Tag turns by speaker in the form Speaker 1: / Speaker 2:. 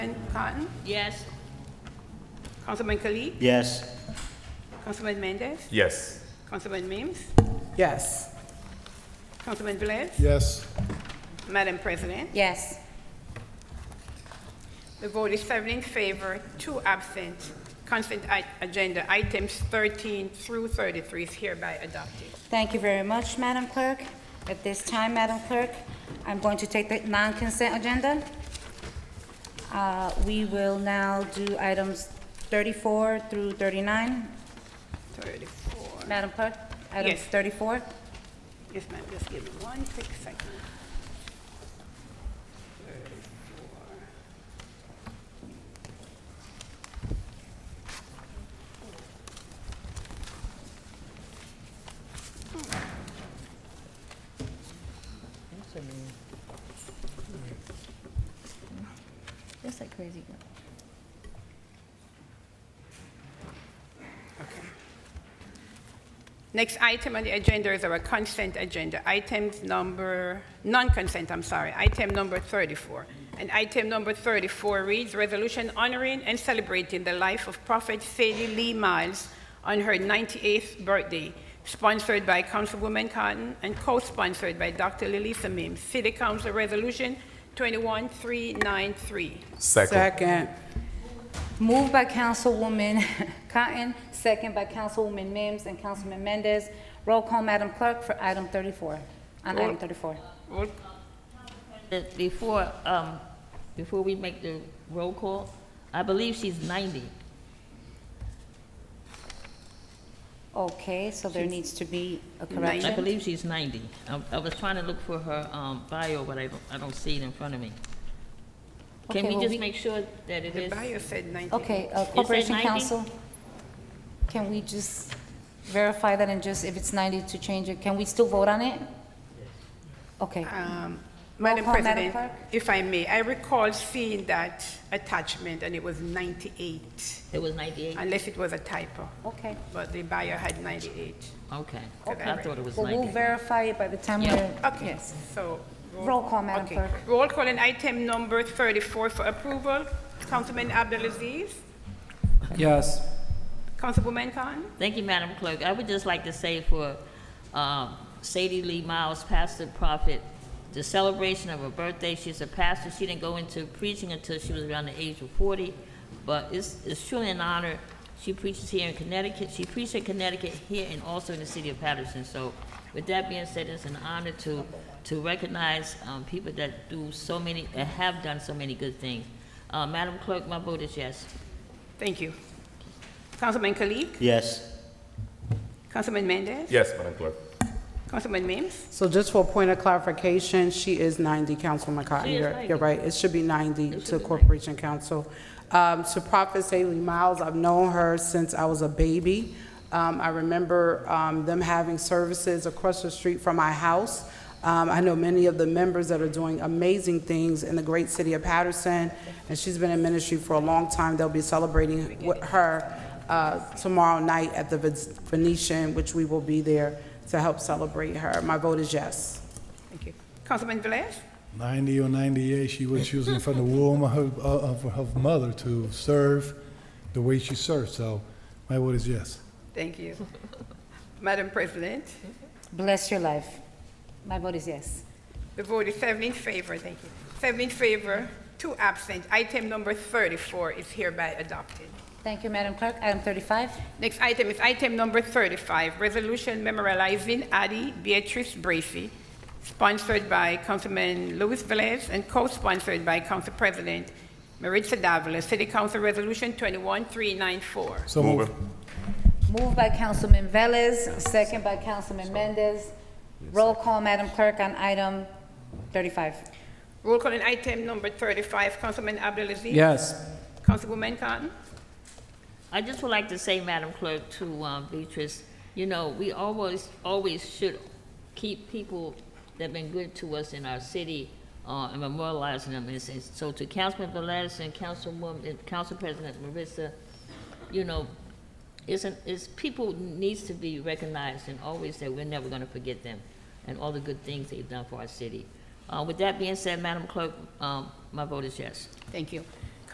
Speaker 1: Cotton,
Speaker 2: Yes.
Speaker 1: Councilman Kalik,
Speaker 3: Yes.
Speaker 1: Councilman Mendez,
Speaker 4: Yes.
Speaker 1: Councilman Mims,
Speaker 5: Yes.
Speaker 1: Councilman Velez,
Speaker 5: Yes.
Speaker 1: Madam President,
Speaker 2: Yes.
Speaker 1: the vote is seven in favor, two absent. Consent i- agenda items 13 through 33 is hereby adopted.
Speaker 2: Thank you very much, Madam Clerk. At this time, Madam Clerk, I'm going to take the non-consent agenda. Uh, We will now do items 34 through 39.
Speaker 1: 34.
Speaker 2: Madam Clerk? Items
Speaker 1: Yes.
Speaker 2: 34?
Speaker 1: Yes, ma'am, just give me one quick second. 34.
Speaker 6: That's like crazy girl.
Speaker 1: Next item on the agenda is our consent agenda, items number, non-consent, I'm sorry, item number 34. And item number 34 reads, "Resolution honoring and celebrating the life of Prophet Sadie Lee Miles on her 98th birthday, sponsored by Councilwoman Cotton and co-sponsored by Dr. Lilisa Mims, City Council Resolution 21393."
Speaker 4: Second.
Speaker 5: Second.
Speaker 2: Moved by Councilwoman Cotton, second by Councilwoman Mims and Councilman Mendez. Roll call, Madam Clerk, for item 34, on item 34.
Speaker 1: Roll
Speaker 6: But Before, um, before we make the roll call, I believe she's ninety.
Speaker 2: Okay, so there needs to be a
Speaker 1: Nine.
Speaker 6: I
Speaker 2: correction.
Speaker 6: believe she's ninety. I, I was trying to look for her, um, bio, but I don't, I don't see it in front of me.
Speaker 2: Okay,
Speaker 6: Can we
Speaker 2: well,
Speaker 6: just
Speaker 2: we-
Speaker 6: make sure that it
Speaker 1: The
Speaker 6: is?
Speaker 1: bio said 98.
Speaker 2: Okay, uh, Corporation
Speaker 6: 90?
Speaker 2: Council, can we just verify that and just, if it's 90 to change it, can we still vote on it? Okay,
Speaker 6: Uh,
Speaker 1: Um, Madam
Speaker 2: call, Madam
Speaker 1: President,
Speaker 2: Clerk.
Speaker 1: if I may, I recall seeing that attachment, and it was 98,
Speaker 6: It was ninety-eight?
Speaker 1: unless it was a typo,
Speaker 2: okay.
Speaker 1: but the buyer had 98.
Speaker 6: Okay.
Speaker 1: Okay.
Speaker 6: I thought it was
Speaker 2: Well,
Speaker 6: ninety.
Speaker 2: we'll verify it by the time
Speaker 6: Yeah.
Speaker 2: we're,
Speaker 1: Okay,
Speaker 2: yes.
Speaker 1: so...
Speaker 2: Roll call, Madam
Speaker 1: okay.
Speaker 2: Clerk.
Speaker 1: Roll call on item number 34 for approval. Councilman Abdelaziz,
Speaker 5: Yes.
Speaker 1: Councilwoman Khan,
Speaker 6: Thank you, Madam Clerk. I would just like to say for um, Sadie Lee Miles, pastor prophet, the celebration of her birthday, she's a pastor. She didn't go into preaching until she was around the age of 40, but it's it's truly an honor. She preaches here in Connecticut. She preached in Connecticut here and also in the city of Patterson. So with that being said, it's an honor to to recognize um, people that do so many, that have done so many good things. Uh, Madam Clerk, my vote is yes.
Speaker 1: thank you. Councilman Kalik,
Speaker 3: Yes.
Speaker 1: Councilman Mendez,
Speaker 4: Yes, Madam Clerk.
Speaker 1: Councilman Mims,
Speaker 5: So just for a point of clarification, she is 90, Councilwoman Cotton.
Speaker 6: She is
Speaker 5: You're,
Speaker 6: 90.
Speaker 5: you're right, it should be 90
Speaker 6: It should
Speaker 5: to
Speaker 6: be
Speaker 5: Corporation Council. Um, To Prophet Saley Miles, I've known her since I was a baby. Um, I remember um, them having services across the street from my house. Um, I know many of the members that are doing amazing things in the great city of Patterson, and she's been in ministry for a long time. They'll be celebrating with her uh, tomorrow night at the Venetian, which we will be there to help celebrate her. My vote is yes.
Speaker 1: thank you. Councilman Velez,
Speaker 7: 90 or 98, she was using from the womb of her, of her mother to serve the way she served. So my word is yes.
Speaker 1: thank you. Madam President,
Speaker 2: Bless your life. My vote is yes.
Speaker 1: The vote is seven in favor, thank you. Seven in favor, two absent. Item number 34 is hereby adopted.
Speaker 2: Thank you, Madam Clerk. Item 35,
Speaker 1: Next item is item number 35, resolution memorializing Addie Beatrice Bracy, sponsored by Councilman Luis Velez and co-sponsored by Council President Maritza Davila, City Council Resolution 21394.
Speaker 7: So
Speaker 4: Move it.
Speaker 2: moved by Councilman Velez, second by Councilman Mendez. Roll call, Madam Clerk, on item 35.
Speaker 1: Roll call on item number 35, Councilman Abdelaziz.
Speaker 5: Yes.
Speaker 1: Councilwoman Cotton.
Speaker 6: I just would like to say, Madam Clerk, to um, Beatrice, you know, we always, always should keep people that have been good to us in our city uh, and memorializing them. And s- and so to Councilman Velez and Councilwoman, and Council President Marissa, you know, it's, an- it's, people needs to be recognized and always that we're never going to forget them and all the good things they've done for our city. Uh, With that being said, Madam Clerk, um, my vote is yes.
Speaker 1: Thank you.